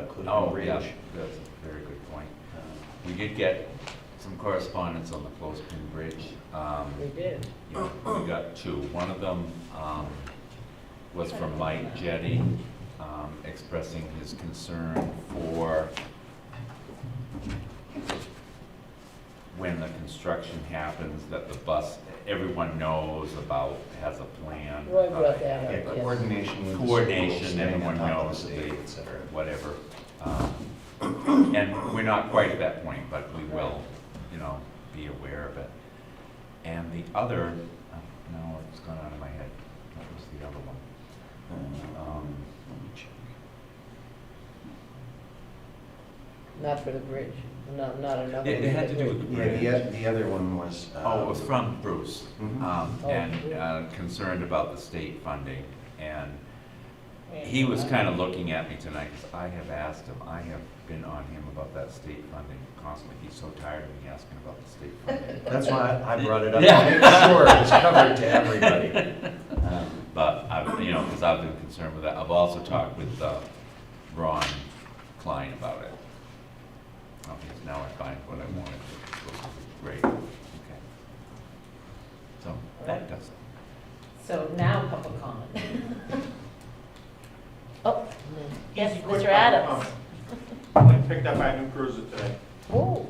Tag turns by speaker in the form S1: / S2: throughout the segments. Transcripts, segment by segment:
S1: including the
S2: Oh,
S1: bridge.
S2: yeah, that's a very good point.
S1: Uh,
S2: We did get some correspondence on the Clothespin Bridge. Um,
S3: We did.
S2: you know, We got two. One of them um, was from Mike Jetty um, expressing his concern for when the construction happens, that the bus, everyone knows about, has a plan.
S3: Roy brought that
S1: Yeah,
S3: up, yes.
S1: coordination with the school,
S2: Coordination,
S1: staying on
S2: everyone
S1: top of the
S2: knows
S1: state,
S2: the-
S1: et cetera.
S2: whatever. Um, And we're not quite at that point, but we will, you know, be aware of it. And the other, oh, no, it's gone out of my head. What was the other one? Um,
S3: Not for the bridge, not, not enough.
S2: It it had to do with the
S1: Yeah, the,
S2: bridge.
S1: oth- the other one was. uh,
S2: Oh, it was from Bruce,
S1: Mhm.
S2: um,
S3: Oh.
S2: and uh, concerned about the state funding. And he was kind of looking at me tonight, because I have asked him, I have been on him about that state funding constantly. He's so tired of me asking about the state funding.
S1: That's why I brought it up,
S2: Yeah.
S1: to make sure it was covered to everybody. Um,
S2: But I've, you know, because I've been concerned with that. I've also talked with uh, Ron Klein about it. Oh, yes, now I find what I wanted, which was great, okay. So that does it.
S4: So now public comment.
S3: Oh,
S4: Yes,
S5: Quick
S4: Mr. Adams.
S5: comment. I picked up my new cruiser today,
S3: oh,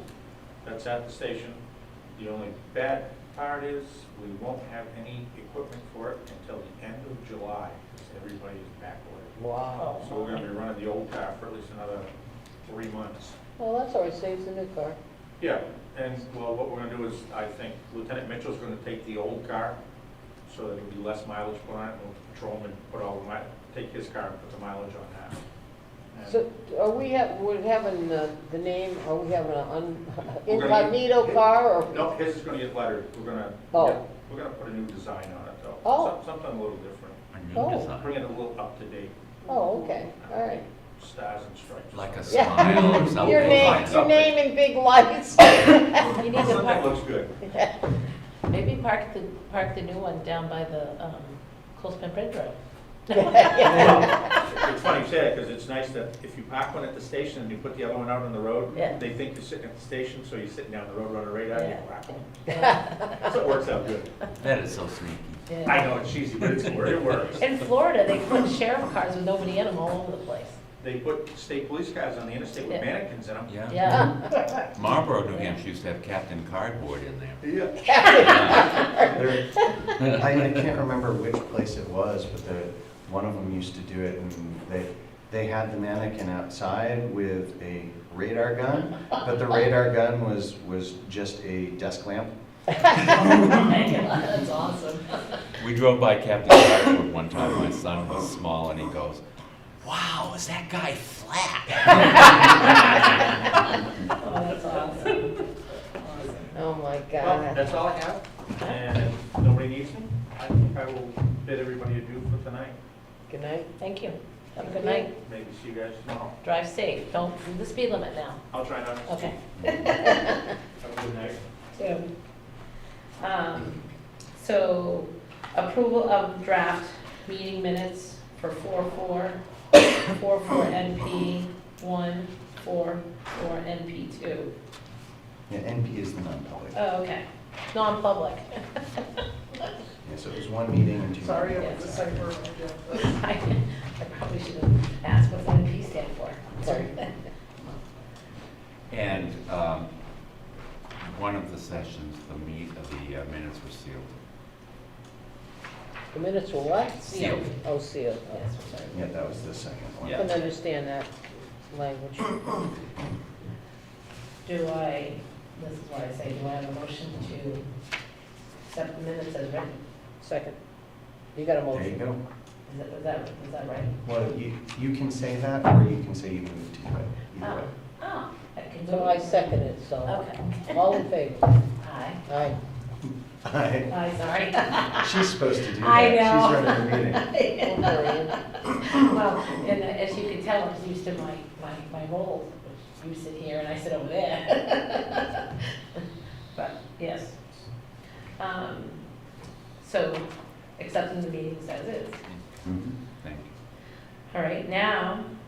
S5: that's at the station. The only bad part is, we won't have any equipment for it until the end of July, because everybody is back ordered.
S3: wow.
S5: Oh. So we're gonna be running the old car for at least another three months.
S3: Well, that's all right, saves the new car.
S5: Yeah, and, well, what we're gonna do is, I think Lieutenant Mitchell's gonna take the old car, so that it'll be less mileage put on it, and we'll patrol him and put all the mi, take his car and put the mileage on that. And-
S3: So are we have, we're having the, the name, are we having an un-
S5: We're gonna-
S3: incognito car or?
S5: No, his is gonna get lettered, we're gonna,
S3: Oh.
S5: yeah, we're gonna put a new design on it though.
S3: Oh.
S5: Some- Something a little different,
S2: A
S3: Oh.
S2: new
S5: bring
S2: design,
S5: it a little up to date,
S3: Oh, okay, all right.
S5: stars and stripes.
S2: like a
S3: Yeah.
S2: smile or something.
S3: Your
S5: find
S3: name, your
S5: something.
S3: name in big lights.
S4: You need to
S5: Something
S4: park,
S5: looks good.
S4: maybe park the, park the new one down by the, um, Coolspin Bridge Road.
S5: It's funny you say that, because it's nice that if you park one at the station and you put the other one out on the road,
S4: Yeah.
S5: they think you're sitting at the station, so you're sitting down the road on a radar, and you
S4: Yeah.
S5: whack 'em. So it works out good.
S2: That is so sneaky.
S4: Yeah.
S5: I know it's cheesy, but it's, it works.
S4: In Florida, they put sheriff cars with nobody in them all over the place.
S5: They put state police cars on the interstate with
S4: Yeah.
S5: mannequins in them.
S2: Yeah.
S4: Yeah,
S2: Marlboro, New Hampshire used to have Captain Cardboard in there.
S5: Yeah.
S1: There- I, I can't remember which place it was, but the, one of them used to do it, and they, they had the mannequin outside with a radar gun, but the radar gun was, was just a desk lamp.
S4: that's awesome.
S2: We drove by Captain Cardboard one time, my son was small, and he goes, wow, is that guy flat?
S4: Oh, that's awesome. Awesome.
S3: Oh, my
S5: Well,
S3: God.
S5: that's all I have, and if nobody needs me, I think I will bid everybody adieu for tonight.
S3: Good night.
S4: Thank you. Have a good night.
S5: Maybe see you guys tomorrow.
S4: Drive safe. Don't do the speed limit now.
S5: I'll try not to.
S4: Okay.
S5: Have a good night.
S4: Two. Um, So approval of draft meeting minutes for four four, four four NP one, four four NP two.
S1: Yeah, NP is the non-public.
S4: Oh, okay. Non-public.
S1: Yeah, so it was one meeting and two.
S4: Sorry, I
S1: meetings.
S4: was sorry I I probably should have asked what NP stand for. Sorry.
S2: And um, one of the sessions, the meat of the uh, minutes were sealed.
S3: The minutes were what?
S4: Sealed.
S3: Oh, sealed. Oh.
S4: Yes, I'm sorry.
S1: Yeah, that was the second one.
S2: Yeah.
S3: Couldn't understand that language.
S4: Do I, this is why I say, do I have a motion to accept the minutes as written?
S3: Second. You got a
S1: There you
S3: motion?
S1: go.
S4: Is that, is that, is that right?
S1: Well, you, you can say that, or you can say you moved to it, either way.
S4: Oh, I can do
S3: So I second it, so.
S4: Okay.
S3: All in favor?
S4: Aye.
S3: Aye.
S1: Hi.
S4: Aye, sorry.
S1: She's supposed to do that.
S4: Oh. I know.
S1: She's running the meeting.
S3: Don't worry, Ann.
S4: Well, and as you can tell, I'm used to my, my, my roles, which you sit here and I sit over there. But, yes. Um, So, accepting the meetings as is.
S1: Mhm.
S2: Thank you.
S4: All right, now,